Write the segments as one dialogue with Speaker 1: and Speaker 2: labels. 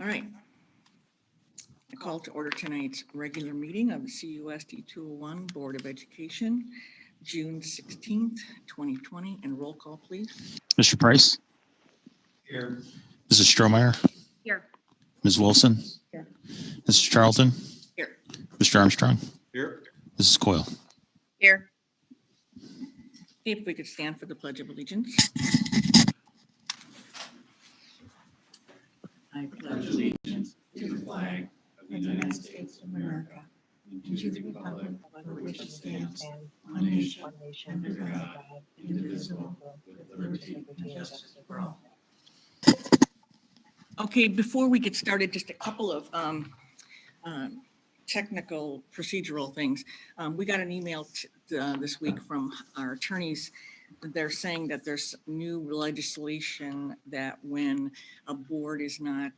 Speaker 1: All right. I call to order tonight's regular meeting of the CUSD 201 Board of Education, June 16th, 2020, and roll call, please.
Speaker 2: Mr. Price?
Speaker 3: Here.
Speaker 2: Mrs. Stromeyer?
Speaker 4: Here.
Speaker 2: Ms. Wilson?
Speaker 1: Here.
Speaker 2: Mrs. Charlton?
Speaker 1: Here.
Speaker 2: Mr. Armstrong?
Speaker 3: Here.
Speaker 2: Mrs. Coyle?
Speaker 4: Here.
Speaker 1: If we could stand for the Pledge of Allegiance. I pledge allegiance.
Speaker 3: To the flag of the United States of America and to the republic for which it stands, one nation, under God, indivisible, with liberty and justice for all.
Speaker 1: Okay, before we get started, just a couple of um, um, technical procedural things. Um, We got an email t- uh, this week from our attorneys. They're saying that there's new legislation that when a board is not,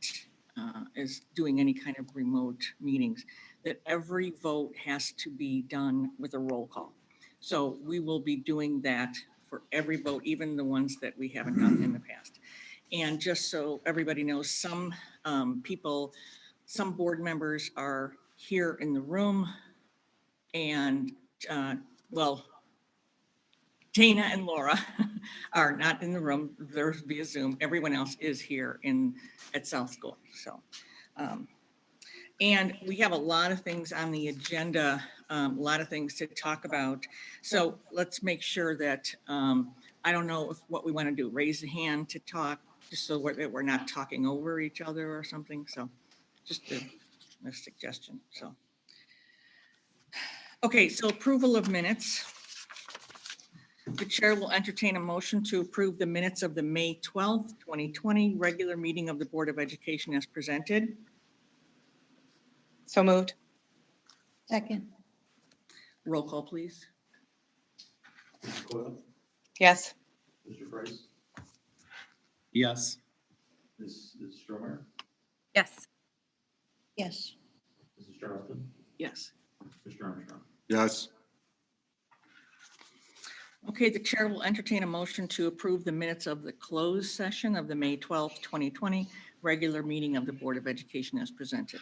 Speaker 1: uh, is doing any kind of remote meetings, that every vote has to be done with a roll call. So we will be doing that for every vote, even the ones that we haven't done in the past. And just so everybody knows, some um, people, some board members are here in the room. And, uh, well, Dana and Laura are not in the room. They're via Zoom. Everyone else is here in, at South School, so. um, And we have a lot of things on the agenda, um, a lot of things to talk about. So let's make sure that um, I don't know if what we want to do, raise a hand to talk, just so we're- that we're not talking over each other or something, so just a a suggestion, so. Okay, so approval of minutes. The chair will entertain a motion to approve the minutes of the May 12th, 2020 regular meeting of the Board of Education as presented.
Speaker 4: So moved.
Speaker 5: Second,
Speaker 1: Roll call, please.
Speaker 3: Mr. Coyle?
Speaker 4: Yes.
Speaker 3: Mr. Price?
Speaker 2: Yes.
Speaker 3: Ms. Ms. Stromeyer?
Speaker 4: Yes.
Speaker 5: yes,
Speaker 3: Mrs. Charlton?
Speaker 1: Yes.
Speaker 3: Mr. Armstrong?
Speaker 6: Yes,
Speaker 1: Okay, the chair will entertain a motion to approve the minutes of the closed session of the May 12th, 2020 regular meeting of the Board of Education as presented.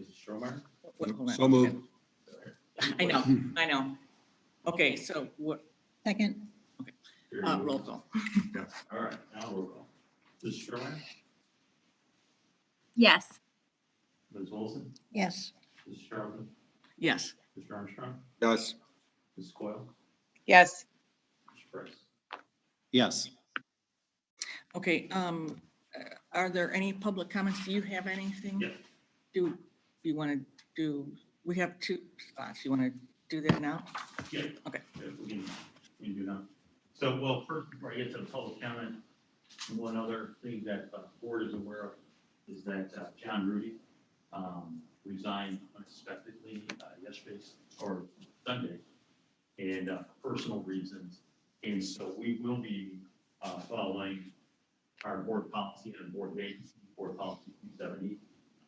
Speaker 3: Mrs. Stromeyer?
Speaker 1: Wait, hold on.
Speaker 6: so moved.
Speaker 1: I know, I know. Okay, so what,
Speaker 5: second,
Speaker 3: Here
Speaker 1: uh,
Speaker 3: you go.
Speaker 1: roll call.
Speaker 3: All right, now roll call. Mrs. Stromeyer?
Speaker 4: Yes.
Speaker 3: Ms. Wilson?
Speaker 5: yes,
Speaker 3: Mrs. Charlton?
Speaker 1: Yes,
Speaker 3: Mr. Armstrong?
Speaker 6: Yes,
Speaker 3: Ms. Coyle?
Speaker 4: Yes.
Speaker 3: Mr. Price?
Speaker 2: Yes.
Speaker 1: okay, um, uh, are there any public comments? Do you have anything?
Speaker 3: Yeah.
Speaker 1: Do you want to do, we have two spots. You want to do that now?
Speaker 3: Yeah.
Speaker 1: Okay.
Speaker 3: Yeah, We can, we can do that. So, well, first, before I get to the public comment, one other thing that the board is aware of is that uh, John Rudy um, resigned unexpectedly uh, yesterday or Sunday and uh, for personal reasons. And so we will be uh, following our board policy and board vacancy, board policy 270.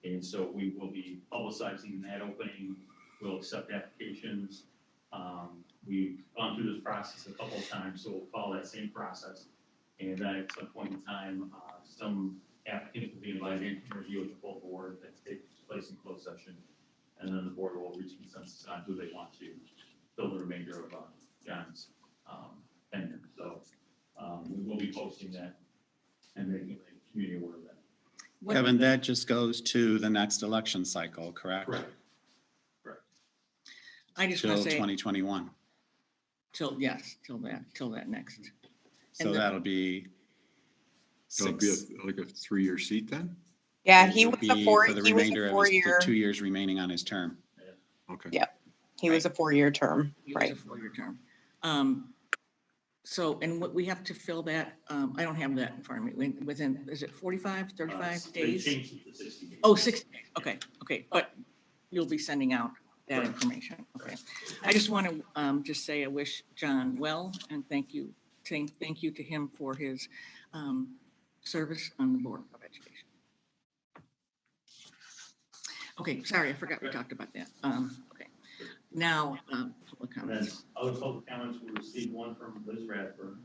Speaker 3: And so we will be publicizing that opening. We'll accept applications. Um, We've gone through this process a couple of times, so we'll follow that same process. And then at some point in time, uh, some applicants will be invited to interview with the full board that takes place in closed session. And then the board will reach consensus on who they want to fill the remainder of uh, John's um, tenure. So um, we will be posting that and making the community aware of that.
Speaker 1: What-
Speaker 7: Kevin, that just goes to the next election cycle, correct?
Speaker 3: Uh,
Speaker 1: I just want
Speaker 7: Till
Speaker 1: to say,
Speaker 7: 2021.
Speaker 1: till, yes, till that, till that next.
Speaker 7: So
Speaker 1: the-
Speaker 7: that'll be
Speaker 6: So it'd be
Speaker 7: six.
Speaker 6: a- like a three-year seat then?
Speaker 4: Yeah, he
Speaker 7: It'll
Speaker 4: was a
Speaker 7: be
Speaker 4: four,
Speaker 7: for the
Speaker 4: he was
Speaker 7: remainder
Speaker 4: a
Speaker 7: of his- the
Speaker 4: four-year,
Speaker 7: Two years remaining on his term.
Speaker 6: Okay.
Speaker 4: Yeah. he was a four-year term,
Speaker 1: It was a
Speaker 4: right?
Speaker 1: four-year term. Um, So, and what, we have to fill that, um, I don't have that in front of me, When- within, is it 45,
Speaker 3: Uh,
Speaker 1: 35
Speaker 3: They
Speaker 1: days?
Speaker 3: changed it to 60 days.
Speaker 1: Oh, 60 days, okay, okay, but you'll be sending out that information, okay. I just want to just say I wish John well and thank you, thank, thank you to him for his um, service on the Board of Education. Okay, sorry, I forgot we talked about that. Um, Okay, now, um, public
Speaker 3: And then
Speaker 1: comments.
Speaker 3: other public comments, we received one from Liz Radford.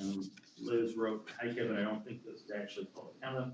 Speaker 3: Um, Liz wrote, hi Kevin, I don't think this is actually public comment,